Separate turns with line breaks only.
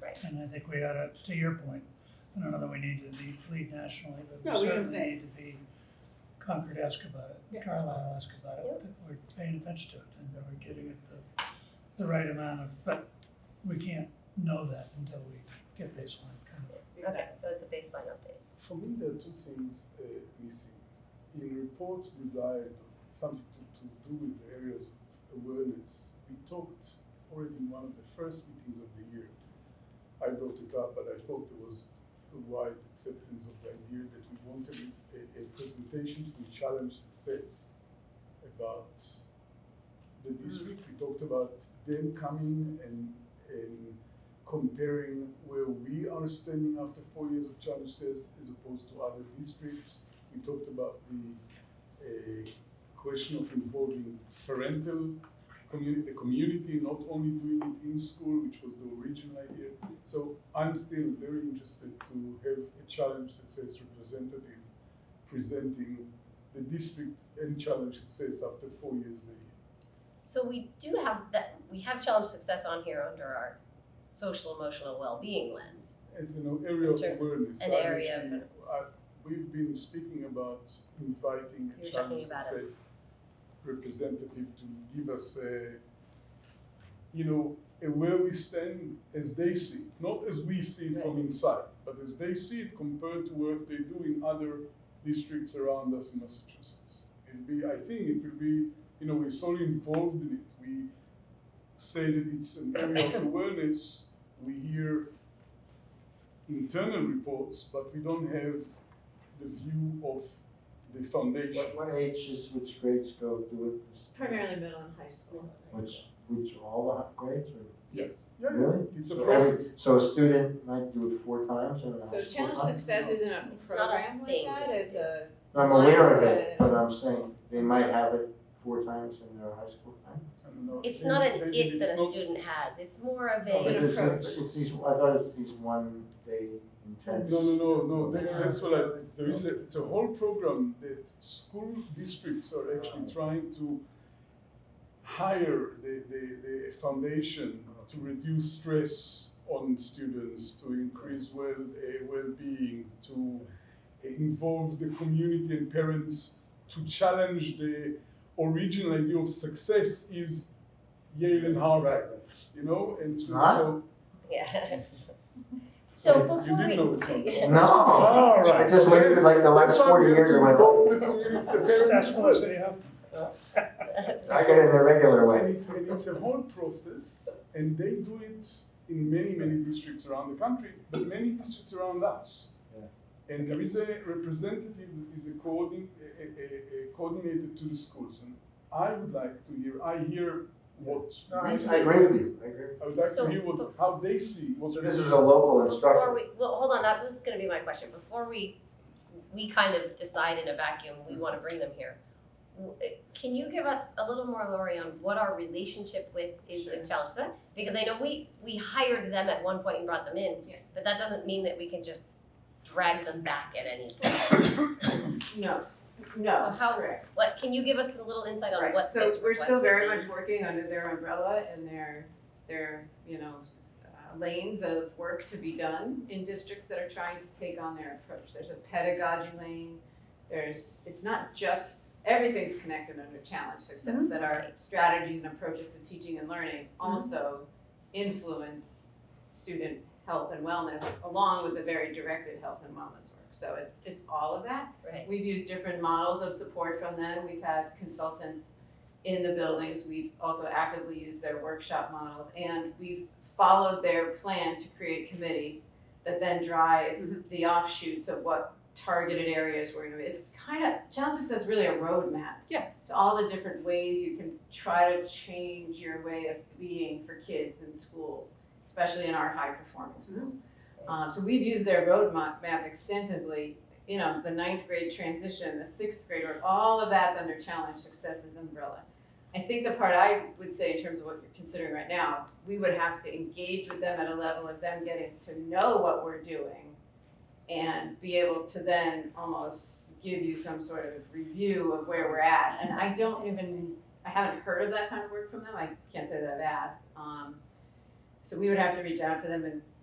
Right.
And I think we ought to, to your point, I don't know that we need to be- lead nationally,
No,
but we
we don't
certainly
say.
need to be Concord-esque about
Yeah.
it, Carlisle-esque about
Yep.
it, that we're paying attention to it and that we're giving it the, the right amount of, but we can't know that until we get baseline kind of.
Okay, so it's a baseline update.
For me, there are two things uh, missing. In reports desired something to, to do with the areas of awareness, we talked already in one of the first meetings of the year. I brought it up, but I thought there was a wide acceptance of the idea that we wanted a, a presentation from Challenge Success about the district. We talked about them coming and, and comparing where we are standing after four years of challenges as opposed to other districts. We talked about the uh, question of involving parental community, the community, not only doing it in school, which was the original idea. So I'm still very interested to have a challenge success representative presenting the district and challenge success after four years later.
So we do have that, we have challenge success on here under our social emotional well-being lens.
It's an area of
Terms-
awareness.
an
I
area of-
actually- I- We've been speaking about inviting a
You're talking
challenge
about it.
success representative to give us a, you know, a where we stand as they see it, not as we see it from inside, but as they see it compared to what they do in other districts around us in Massachusetts. It'll be, I think it will be, you know, we're so involved in it. We say that it's an area of awareness. We hear internal reports, but we don't have the view of the foundation.
What, what ages, which grades go do it?
Primarily middle and high school.
Which, which are all the hi- grades or?
Yes. Yeah,
Hmm.
yeah.
Really?
It's a
So every-
process.
So a student might do it four times and a
So
high school
challenge
time?
success isn't a
It's not a
program like
thing.
that, it's a,
I'm aware of
mindset.
it, but I'm saying they might have it four times in their high school time.
I don't know.
It's
Maybe-
not an
maybe
it that a
it's not- Oh,
student has, it's more of
It's an
But
a,
it's-
approach.
It's these, I thought it's these one day intense.
No, no, no, no, that's,
No.
that's what I, there is a, it's a whole program that school districts are actually trying to hire the, the, the foundation to reduce stress on students, to increase well, uh, well-being, to involve the community and parents, to challenge the original idea of success is Yale and Harvard, you know, and so.
Huh?
so-
yeah. So
You
before
did know it's
we,
on.
No,
All right.
I just wasted like the last
That's why we
forty
have
years
to
of my
involve
life.
the community, the parents
That's
as
what
well.
I say, yeah.
I get it in the regular
And
way.
it's, and it's a whole process, and they do it in many, many districts around the country, but many districts around us. And there is a representative that is a coordin- a, a, a coordinator to the schools, and I would like to hear, I hear what
No, I
we
I
see.
agree with you, I agree.
I would like
So-
to hear what, how they see, what.
So
we
this
see.
is a local
before
instructor.
we, well, hold on, that was gonna be my question, before we, we kind of decide in a vacuum, we wanna bring them here. W- Can you give us a little more, Lori, on what our relationship with, is with Challenge Success? Because I know we, we hired them at one point and brought them in,
Yeah.
but that doesn't mean that we can just drag them back at any point.
No,
So
no.
how,
Correct.
what, can you give us a little insight on
Right,
what
so
this
we're still
request would
very
be?
much working under their umbrella and their, their, you know, uh, lanes of work to be done in districts that are trying to take on their approach. There's a pedagogy lane, there's, it's not just, everything's connected under challenge success, that our strategies and approaches to teaching and learning also influence student health and wellness along with the very directed health and wellness work. So it's, it's all of that.
Right.
We've used different models of support from them. We've had consultants in the buildings. We've also actively used their workshop models and we've followed their plan to create committees that then drive the offshoots of what targeted areas we're gonna be. It's kind of, Challenge Success is really a roadmap.
Yeah.
To all the different ways you can try to change your way of being for kids in schools, especially in our high performing schools. Um, so we've used their roadmap map extensively you know, the ninth grade transition, the sixth grader, all of that's under challenge successes umbrella. I think the part I would say in terms of what you're considering right now, we would have to engage with them at a level of them getting to know what we're doing and be able to then almost give you some sort of review of where we're at. And I don't even, I haven't heard of that kind of work from them. I can't say that I've asked. Um, so we would have to reach out to them and